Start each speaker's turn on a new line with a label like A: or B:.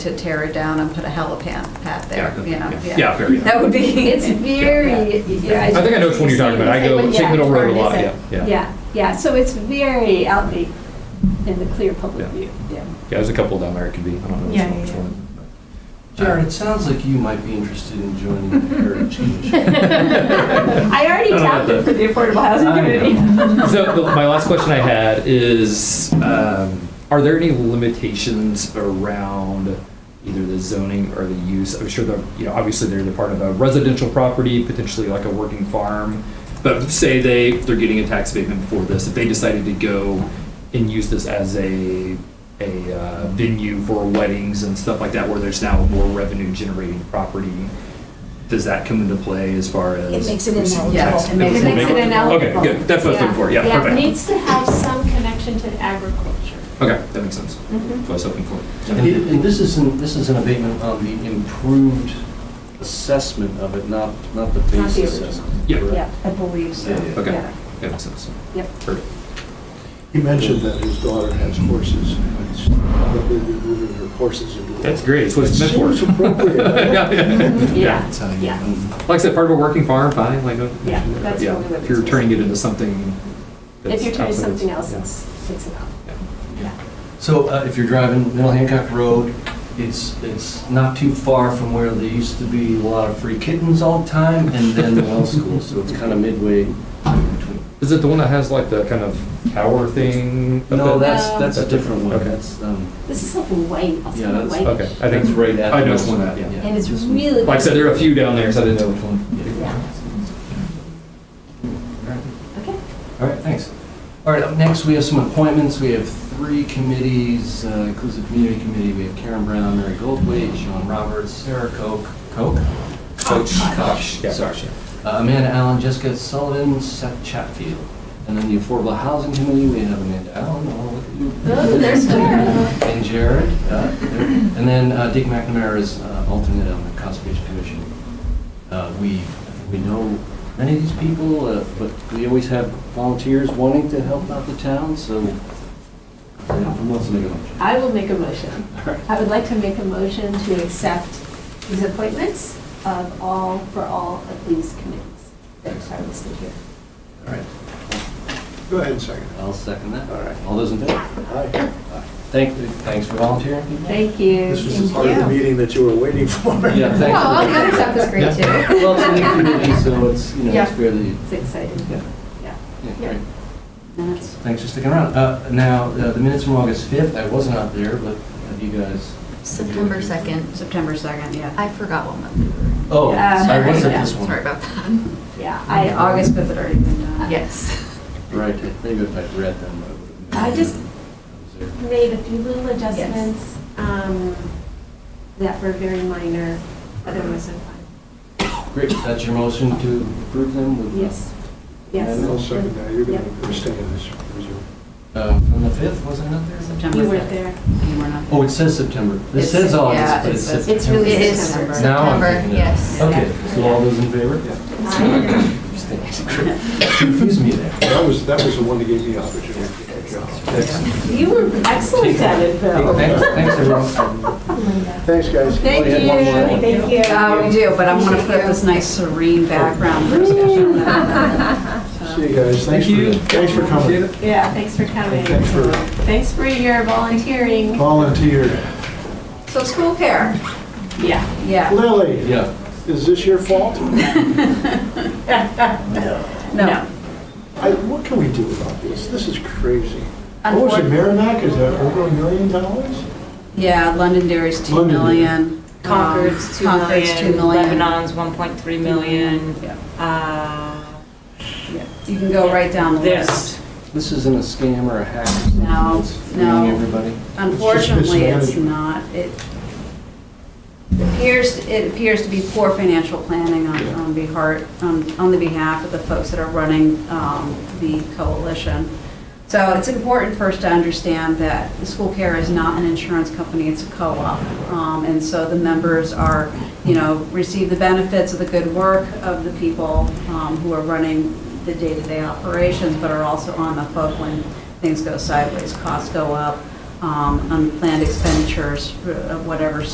A: to tear it down and put a helipad pad there,
B: Yeah,
A: you know?
B: yeah. Yeah, very.
A: That would be.
C: It's very. yeah,
B: I think I know which one you're talking about. I go
C: Yeah,
B: Signal Road a
C: Burn,
B: lot,
C: is
B: yeah,
C: it?
B: yeah.
C: Yeah, yeah, so it's very out in the- in the clear public
B: Yeah.
C: view, yeah.
B: Yeah, there's a couple down there, it could be, I don't know
D: Yeah,
B: which
D: yeah,
B: one. uh,
E: Jared, it sounds like you might be interested in joining the Heritage Commission.
C: I
B: I don't
C: already
B: know
C: tapped
B: about
C: it for the affordable housing
E: I know.
C: community.
B: which one. So the- my last question I had is, um, are there any limitations around either the zoning or the use? I'm sure the, you know, obviously they're the part of a residential property, potentially like a working farm. But say they, they're getting a tax abatement for this, if they decided to go and use this as a, a uh, venue for weddings and stuff like that, where there's now more revenue generating property, does that come into play as far as?
D: It makes it ineligible.
A: Yeah,
B: Yes.
A: it makes
C: it ineligible.
B: Okay, good, that's what I was looking for, yeah,
F: Yeah, it
B: perfect.
F: needs to have some connection to agriculture.
B: Okay, that makes sense.
C: Mm-hmm.
B: That's what I was hoping for.
E: And it- and this is, an- this is an abatement on the improved assessment of it, not, not the
C: Not
E: base
C: the
E: assessment.
B: Yeah.
E: correct?
C: Yeah, I believe so.
E: Yeah, yeah.
B: Okay,
C: Yeah.
B: that makes sense.
C: Yep.
B: Perfect.
G: He mentioned that his daughter has horses, and it's probably moving her horses into. the-
B: That's great, it's what it's meant for.
G: Seems appropriate.
B: Yeah, yeah.
C: Yeah,
B: Yeah.
C: yeah.
E: um,
B: Like I said, part of a working farm, fine, like. no-
C: Yeah, that's
B: yeah,
C: really what
B: If you're
C: it's-
B: turning it into something.
C: If
B: that's
C: you're trying to
B: outside
C: do
B: of-
C: something else,
B: yeah.
C: it's, it's enough.
B: Yeah.
C: Yeah.
E: So uh, if you're driving Middle Hancock Road, it's, it's not too far from where there used to be a lot of free kittens all the time, and then the well school, so it's kind of midway in between.
B: Is it the one that has like the kind of tower thing? up
E: No,
B: there?
E: that's, that's a different one,
B: Okay.
E: that's, um,
C: This is like white, I'll say
E: Yeah, that's-
C: white.
B: Okay, I think.
E: That's right at-
B: I know it's one that, yeah.
E: Yeah.
C: And it's really.
B: Like I said, there are a few down there, so I didn't know which one.
C: Yeah,
E: all right.
C: okay.
E: All right, thanks. All right, up next, we have some appointments. We have three committees, uh, Inclusive Community Committee. We have Karen Brown, Mary Goldwait, Sean Roberts, Sarah Koch, Koch? Koch, Koch,
B: Yeah,
E: sorry.
B: Koch,
E: Uh, Amanda Allen, Jessica Sullivan, Seth Chatfield. And then the Affordable Housing Committee, we have Amanda Allen, oh, look at you.
C: Oh, there's Jared.
E: And Jared. uh, there- And then uh, Dick McNamara is uh, alternate on the Conservation Commission. Uh, We, we know many of these people, uh, but we always have volunteers wanting to help out the town, so uh, who wants to make a motion?
C: I will make a motion.
E: All right.
C: I would like to make a motion to accept these appointments of all, for all of these committees that are listed here.
E: All right,
G: Go ahead and second.
E: I'll second that.
G: All right.
E: All those in favor?
G: Hi.
E: Thank, thanks for volunteering.
C: Thank you.
G: This was the part of the meeting that you were waiting for.
E: Yeah,
C: Oh,
E: thanks.
A: Well, the other stuff is great too.
E: Well, it's a new committee, so it's, you know, it's
C: Yeah.
E: fairly,
C: It's exciting.
E: yeah,
C: Yeah.
E: yeah,
C: Yeah.
E: great.
C: And that's-
E: Thanks for sticking around. Uh, Now, uh, the minutes from August 5th, I wasn't out there, but have you guys?
H: September 2nd.
A: September 2nd, yeah.
H: I forgot what month we were in.
E: Oh,
C: Yeah.
E: I was at
H: Yeah,
E: this one.
H: Sorry about that.
C: Yeah,
A: I,
C: I,
A: August 5th had already been done.
H: Yes.
E: Right, maybe if I'd read them. would've
C: I just-
E: been-
F: Made a few little adjustments um, that were very minor, otherwise I'm fine.
E: Great, that's your motion to approve them with?
C: yes,
G: And I'll
C: yes.
G: second that. Oh, You're going
C: Yep.
G: to abstain in this. presume.
E: Uh, From the 5th, wasn't it?
A: September
F: You
A: 5th.
F: weren't there.
A: You were not there.
E: Oh, it says September. It
A: It's-
E: says August,
A: yeah,
E: but
A: it
E: it's
A: says-
E: September.
C: It's really
H: It is
C: September.
E: Now I'm
H: September,
E: thinking of-
H: yes.
E: Okay, so all those in favor? Yeah. Confuse me there.
G: That was, that was the one that gave me the opportunity to get a job.
C: You were excellent at it, Bill.
E: Thanks, thanks everyone.
G: Thanks, guys.
C: Thank
E: Only had one more.
C: you. Thank you.
A: Uh, we do, but I want to put up this nice serene background for discussion.
G: See you guys. Thanks for- Thanks for
B: Appreciate
G: coming.
B: it.
C: Yeah, thanks for coming.
G: Thanks for
C: Thanks for your volunteering.
G: volunteer.
A: So school care,
C: Yeah.
A: yeah.
G: Lily,
E: Yeah.
G: is this your fault?
A: No.
G: I, what can we do about this? This is crazy. What was it, Merrimack, is that over a million dollars?
A: Yeah, Londonderry's 2
G: Londonderry.
A: million.
D: Concord's
A: Um, Concord's
D: 2 million, Lebanon's 1.3 million.
A: Yeah,
D: uh,
A: yeah. You can go right down the
D: This.
A: list.
E: This isn't a scam or a hack or something
A: No,
E: that's fooling
A: no.
E: everybody?
A: Unfortunately, it's
G: mismanagement.
A: not. It appears, it appears to be poor financial planning on,
E: Yeah.
A: on behar- on, on the behalf of the folks that are running, um, the coalition. So it's important for us to understand that the school care is not an insurance company, it's a co-op. Um, and so the members are, you know, receive the benefits of the good work of the people, um, who are running the day-to-day operations, but are also on the hook when things go sideways, costs go up, um, unplanned expenditures, uh, whatever